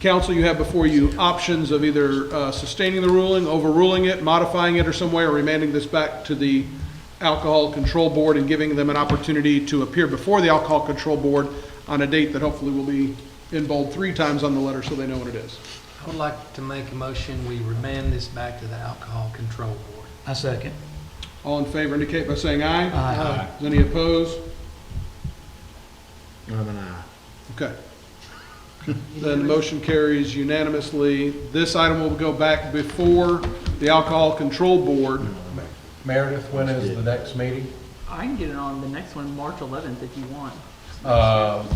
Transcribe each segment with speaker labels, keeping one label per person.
Speaker 1: Council, you have before you options of either uh, sustaining the ruling, overruling it, modifying it or some way, or remanding this back to the Alcohol Control Board and giving them an opportunity to appear before the Alcohol Control Board on a date that hopefully will be in bold three times on the letter so they know what it is.
Speaker 2: I would like to make a motion, we remand this back to the Alcohol Control Board.
Speaker 3: I second.
Speaker 1: All in favor indicate by saying aye.
Speaker 3: Aye.
Speaker 1: Is any opposed?
Speaker 4: I'm an aye.
Speaker 1: Okay. Then the motion carries unanimously. This item will go back before the Alcohol Control Board.
Speaker 5: Meredith, when is the next meeting?
Speaker 6: I can get it on the next one, March 11th, if you want.
Speaker 5: Um,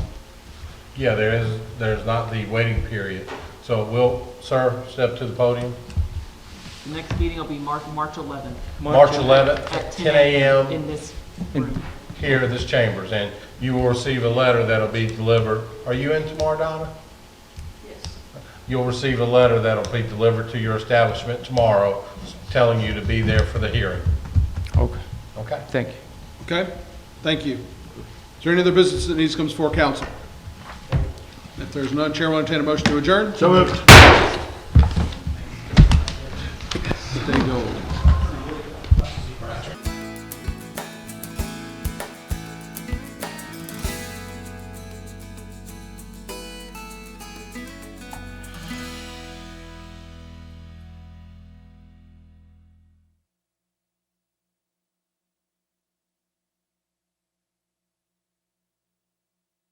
Speaker 5: Yeah, there is, there's not the waiting period. So will, sir, step to the podium.
Speaker 6: The next meeting will be March, March 11th.
Speaker 5: March 11th
Speaker 6: At
Speaker 5: at 10 a.m.
Speaker 6: In this room.
Speaker 5: here at this chambers, and you will receive a letter that'll be delivered. Are you in tomorrow, Donna? Yes. You'll receive a letter that'll be delivered to your establishment tomorrow, telling you to be there for the hearing.
Speaker 7: Okay,
Speaker 5: Okay?
Speaker 7: thank you.
Speaker 1: Okay? Thank you. Is there any other business that needs to come before council? If there's none, Chair will entertain a motion to adjourn.
Speaker 4: So moved.